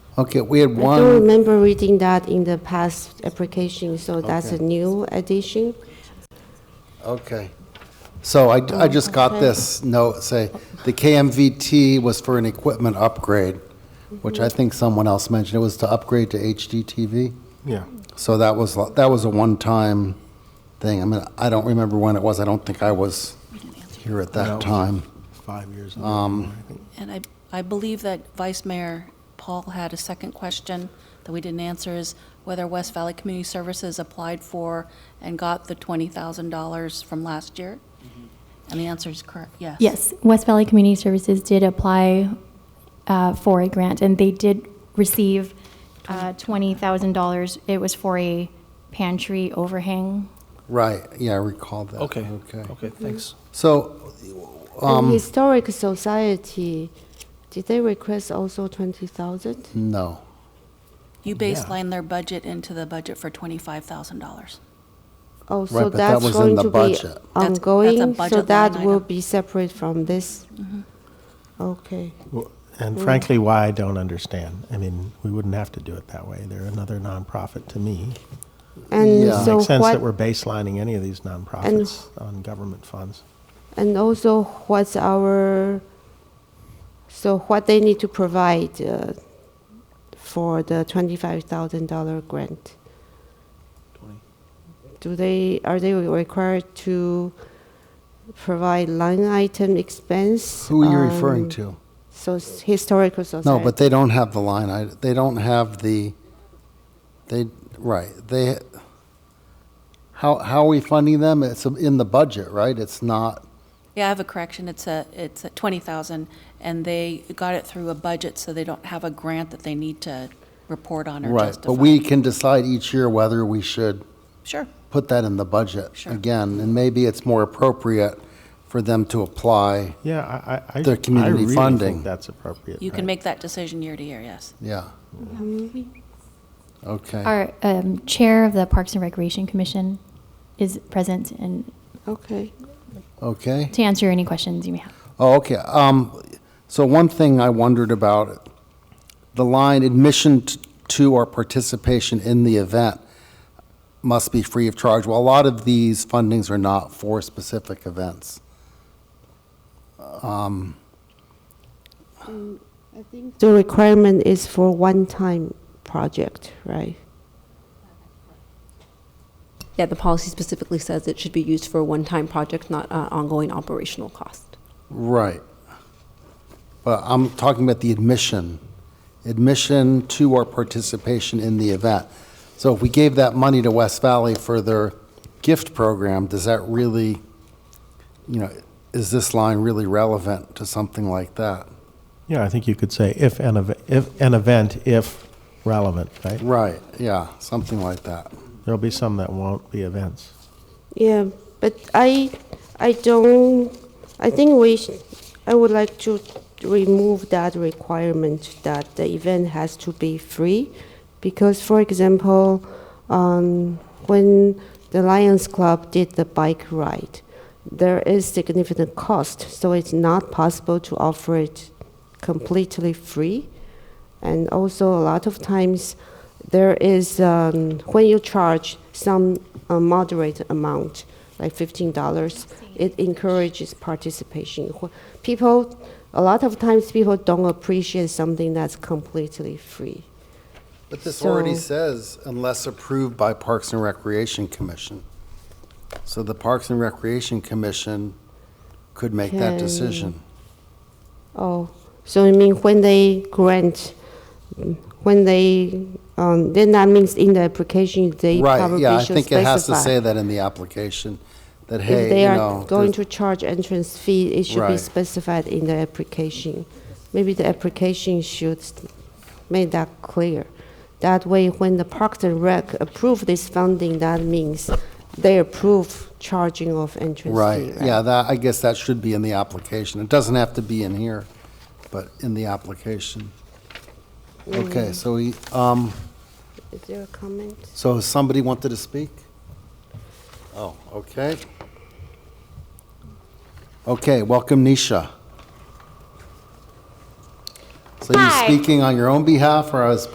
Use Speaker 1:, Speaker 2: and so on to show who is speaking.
Speaker 1: Okay, we had
Speaker 2: I don't
Speaker 1: one,
Speaker 2: remember reading that in the past application, so that's a
Speaker 1: Okay.
Speaker 2: new addition.
Speaker 1: okay. So I, I
Speaker 2: Oh,
Speaker 1: just got this note, say, the KMVT was for an equipment upgrade, which I think someone else mentioned, it was to upgrade to HDTV.
Speaker 3: Yeah.
Speaker 1: So that was, lo- that was a one-time thing. I mean, I don't remember when it was, I don't think I was here at
Speaker 3: That
Speaker 1: that
Speaker 3: was-
Speaker 1: time.
Speaker 3: Five years. ago,
Speaker 1: Um,
Speaker 3: I think.
Speaker 4: And I, I believe that Vice Mayor Paul had a second question that we didn't answer is whether West Valley Community Services applied for and got the $20,000 from last year?
Speaker 1: Mm-hmm.
Speaker 4: And the answer is correct, yes.
Speaker 5: Yes, West Valley Community Services did apply uh, for a grant, and they did receive uh, $20,000. It was for a pantry overhang.
Speaker 1: Right, yeah, I recall that.
Speaker 3: Okay,
Speaker 1: Okay.
Speaker 3: okay, thanks.
Speaker 1: So, Um,
Speaker 2: The Historic Society, did they request also 20,000?
Speaker 1: no,
Speaker 4: You baseline their budget into the budget for $25,000.
Speaker 2: Oh,
Speaker 1: Right,
Speaker 2: so
Speaker 1: but that
Speaker 2: that's
Speaker 1: was in
Speaker 2: going
Speaker 1: the
Speaker 2: to be
Speaker 1: budget. That's-
Speaker 4: that's a
Speaker 2: ongoing, so
Speaker 4: budget
Speaker 2: that
Speaker 4: line
Speaker 2: will
Speaker 4: item. Mm-hmm.
Speaker 2: be separate from this? Okay.
Speaker 3: Well, And
Speaker 1: mm.
Speaker 3: frankly, why I don't understand. I mean, we wouldn't have to do it that way. They're another nonprofit to me.
Speaker 2: And
Speaker 1: Yeah.
Speaker 3: It
Speaker 2: so
Speaker 3: makes sense that we're
Speaker 2: what,
Speaker 3: baselining any of these nonprofits on government funds.
Speaker 2: and also what's our, so what they need to provide uh, for the $25,000 grant? Do they, are they required to provide line item expense?
Speaker 1: who are you referring
Speaker 2: Um,
Speaker 1: to?
Speaker 2: So s- historical society.
Speaker 1: No, but they don't have the line, I, they don't have the, they, right, they, how, how are we funding them? It's in the budget, right? It's not,
Speaker 4: Yeah, I have a correction. It's a, it's a 20,000 and they got it through a budget, so they don't have a grant that they need to report on or
Speaker 1: right,
Speaker 4: justify.
Speaker 1: but we can decide each year whether we should
Speaker 4: Sure.
Speaker 1: put that in the budget
Speaker 4: Sure.
Speaker 1: again, and maybe it's more appropriate for them to apply,
Speaker 3: Yeah, I, I- I.
Speaker 1: Their community
Speaker 3: I really think
Speaker 1: funding.
Speaker 3: That's appropriate.
Speaker 4: You can
Speaker 3: right?
Speaker 4: make that decision year to year, yes.
Speaker 1: yeah. Okay,
Speaker 5: Our um, chair of the Parks and Recreation Commission is present, and
Speaker 2: Okay.
Speaker 1: okay.
Speaker 5: to answer any questions you may have.
Speaker 1: Oh, okay. Um, so one thing I wondered about, the line admission t- to or participation in the event must be free of charge. Well, a lot of these fundings are not for specific events.
Speaker 2: The requirement is for one-time project, right?
Speaker 6: Yeah, the policy specifically says it should be used for a one-time project, not uh, ongoing operational cost.
Speaker 1: Right. But I'm talking about the admission, admission to or participation in the event. So if we gave that money to West Valley for their gift program, does that really, you know, is this line really relevant to something like that?
Speaker 3: Yeah, I think you could say if an, ev- if an event, if relevant, right?
Speaker 1: Right, yeah, something like that.
Speaker 3: There'll be some that won't be events.
Speaker 2: Yeah, but I, I don't, I think we, sh- I would like to remove that requirement that the event has to be free. Because for example, um, when the Lions Club did the bike ride, there is significant cost, so it's not possible to offer it completely free. And also, a lot of times, there is, um, when you charge some uh, moderate amount, like $15, it encourages participation. Wh- People, a lot of times, people don't appreciate something that's completely free.
Speaker 1: But this
Speaker 2: So-
Speaker 1: already says unless approved by Parks and Recreation Commission. So the Parks and Recreation Commission could make that
Speaker 2: Can-
Speaker 1: decision.
Speaker 2: Oh, so you mean when they grant, mm, when they, um, then that means in the application, they
Speaker 1: Right,
Speaker 2: probably
Speaker 1: yeah, I
Speaker 2: should
Speaker 1: think it has to
Speaker 2: specify.
Speaker 1: say that in the application, that,
Speaker 2: If
Speaker 1: hey,
Speaker 2: they
Speaker 1: you
Speaker 2: are
Speaker 1: know.
Speaker 2: going to
Speaker 1: there's-
Speaker 2: charge entrance fee, it should be
Speaker 1: Right.
Speaker 2: specified in the application. Maybe the application should st- make that clear. That way, when the Parks and Rec approve this funding, that means they approve charging of entrance fee,
Speaker 1: Right,
Speaker 2: right?
Speaker 1: yeah, that, I guess that should be in the application. It doesn't have to be in here, but in the application.
Speaker 2: Mm.
Speaker 1: Okay, so, we, um,
Speaker 2: Is there a comment?
Speaker 1: so somebody wanted to speak? Oh, okay. Okay, welcome Nisha. So are you
Speaker 5: Hi.
Speaker 1: speaking on your own behalf or as